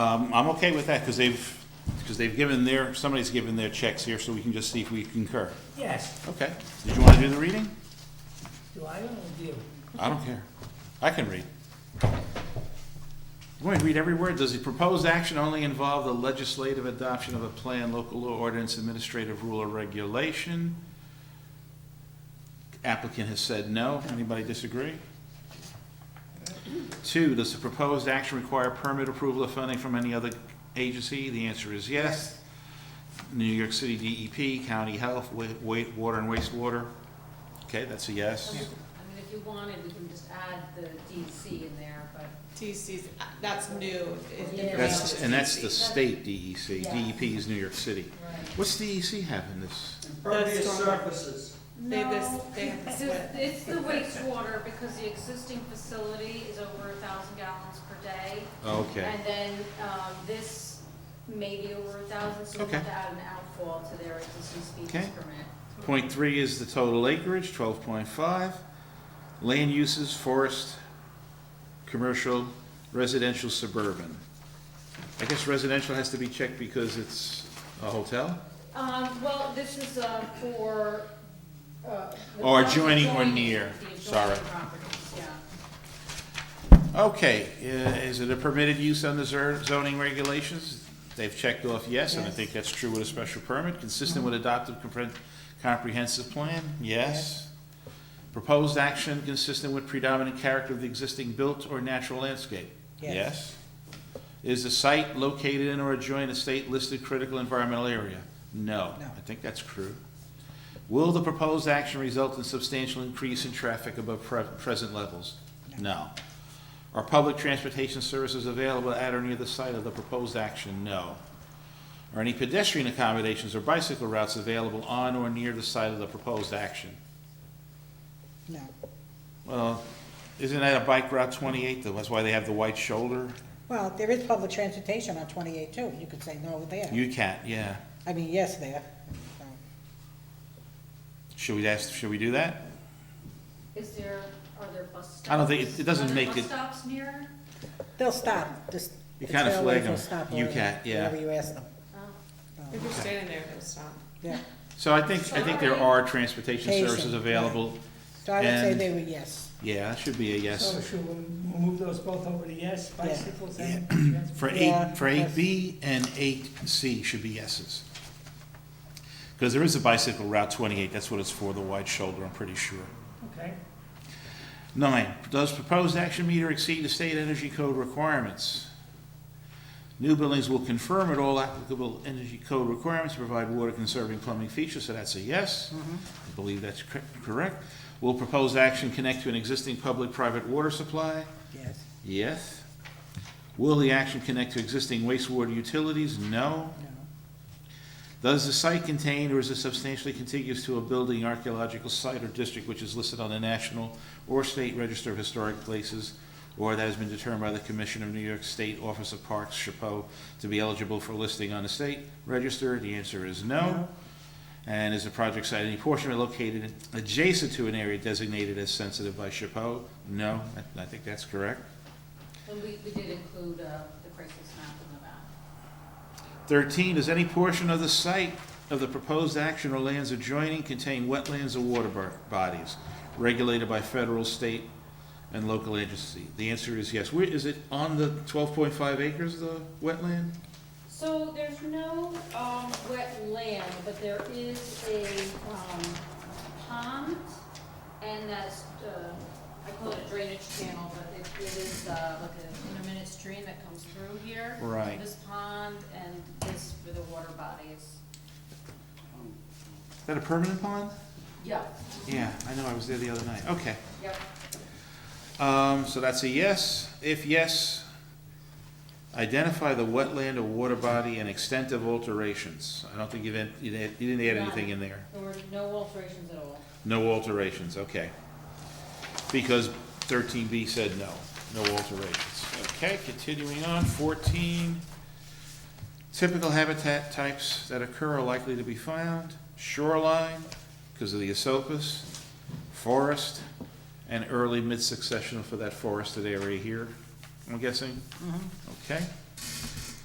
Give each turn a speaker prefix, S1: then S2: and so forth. S1: Um, I'm okay with that, because they've, because they've given their, somebody's given their checks here, so we can just see if we concur.
S2: Yes,
S1: Okay. Did you want to do the reading?
S2: do I own you?
S1: I don't care. I can read. You want me to read every word? Does the proposed action only involve the legislative adoption of a plan, local law ordinance, administrative rule or regulation? Applicant has said no. Anybody disagree? Two, does the proposed action require permit approval of funding from any other agency? The answer is yes. New York City DEP, County Health, wa- wa- Water and Wastewater. Okay, that's a yes.
S3: I mean, if you wanted, we can just add the DC in there, but
S4: TC's, that's new. is
S3: Yeah.
S1: That's,
S4: different.
S1: and that's the state E DEC,
S3: Yeah.
S1: DEP is New York City.
S3: Right.
S1: What's DEC have in this?
S4: Impervious
S5: Impervious surfaces.
S4: They have this-
S3: No,
S4: they have
S3: it's
S4: this
S3: just- It's the wastewater, because the existing facility is over a thousand gallons per day.
S1: Okay,
S3: And then, um, this may be over a thousand, so we
S1: Okay.
S3: have to add an outfall to their existing species
S1: Okay.
S3: permit.
S1: point three is the total acreage, twelve point five. Land uses, forest, commercial, residential, suburban. I guess residential has to be checked because it's a hotel?
S3: Um, well, this is, uh, for, uh. the
S1: Or adjoining or
S3: adjoining-
S1: near.
S3: the adjoining
S1: Sorry.
S3: properties, yeah.
S1: Okay, i- is it a permitted use under zer- zoning regulations? They've checked off yes, and I think that's true with a special permit, consistent with adopted compre- comprehensive plan, yes. Proposed action consistent with predominant character of the existing built or natural landscape?
S5: Yes.
S1: Is the site located in or adjoining a state-listed critical environmental area? No,
S5: No.
S1: I think that's true. Will the proposed action result in substantial increase in traffic above pre- present levels? No. Are public transportation services available at or near the site of the proposed action? No. Are any pedestrian accommodations or bicycle routes available on or near the site of the proposed action?
S5: No.
S1: Well, isn't that a bike route twenty-eight though? That's why they have the white shoulder?
S5: Well, there is public transportation on twenty-eight too. You could say no there.
S1: You can't, yeah.
S5: I mean, yes there. So,
S1: Should we ask, should we do that?
S3: Is there, are there bus stops?
S1: I don't think- it- it doesn't make
S3: Are
S1: it-
S3: there bus stops near?
S5: They'll stop, just.
S1: You
S5: the
S1: kinda
S5: trailways
S1: flag
S5: will
S1: 'em.
S5: stop
S1: You
S5: wherever-
S1: can't, yeah.
S5: Wherever you ask them.
S3: Oh.
S4: If you're standing there, it'll stop.
S5: Yeah.
S1: So I think, I think there are transportation
S5: Sorry.
S1: services available.
S5: So I would say
S1: And-
S5: they were yes.
S1: Yeah, that should be a yes.
S2: So should we move those both over to yes, bicycles and
S1: For
S5: Yeah,
S1: eight, for eight B and eight C should be yeses. Because there is a bicycle route twenty-eight, that's what it's for, the wide shoulder, I'm pretty sure.
S2: Okay,
S1: Nine, does proposed action meter exceed the state energy code requirements? New buildings will confirm at all applicable energy code requirements, to provide water conserving plumbing features, so that's a yes. I believe that's cor- correct. Will proposed action connect to an existing public-private water supply?
S5: Yes.
S1: Yes. Will the action connect to existing wastewater utilities? No.
S5: No.
S1: Does the site contain or is it substantially contiguous to a building, archaeological site or district which is listed on the National or State Register of Historic Places or that has been determined by the Commission of New York State Office of Parks, SHPO, to be eligible for listing on the state register? The answer is no. And is the project site any portion of it located adjacent to an area designated as sensitive by SHPO? No, I- I think that's correct.
S3: And we, we did include, uh, the crisis map in the map.
S1: 13, does any portion of the site of the proposed action or lands adjoining contain wetlands or water bo- bodies regulated by federal, state, and local agency? The answer is yes. Where, is it on the 12.5 acres, the wetland?
S3: So there's no, um, wetland, but there is a, um, pond, and that's, uh, I call it a drainage channel, but it, it is, uh, like an intermittent stream that comes through here.
S1: Right.
S3: This pond and this for the water bodies,
S1: Is that a permanent pond?
S3: yeah,
S1: Yeah, I know, I was there the other night. Okay.
S3: yep.
S1: Um, so that's a yes. If yes, identify the wetland or water body and extent of alterations. I don't think you've, en- you didn't you didn't add anything in there.
S3: There were no alterations at all.
S1: No alterations, okay. Because thirteen B said no, no alterations. Okay, continuing on, fourteen. Typical habitat types that occur are likely to be found, shoreline, because of the esopus, forest, and early mid-successional for that forested area here, I'm guessing? Okay.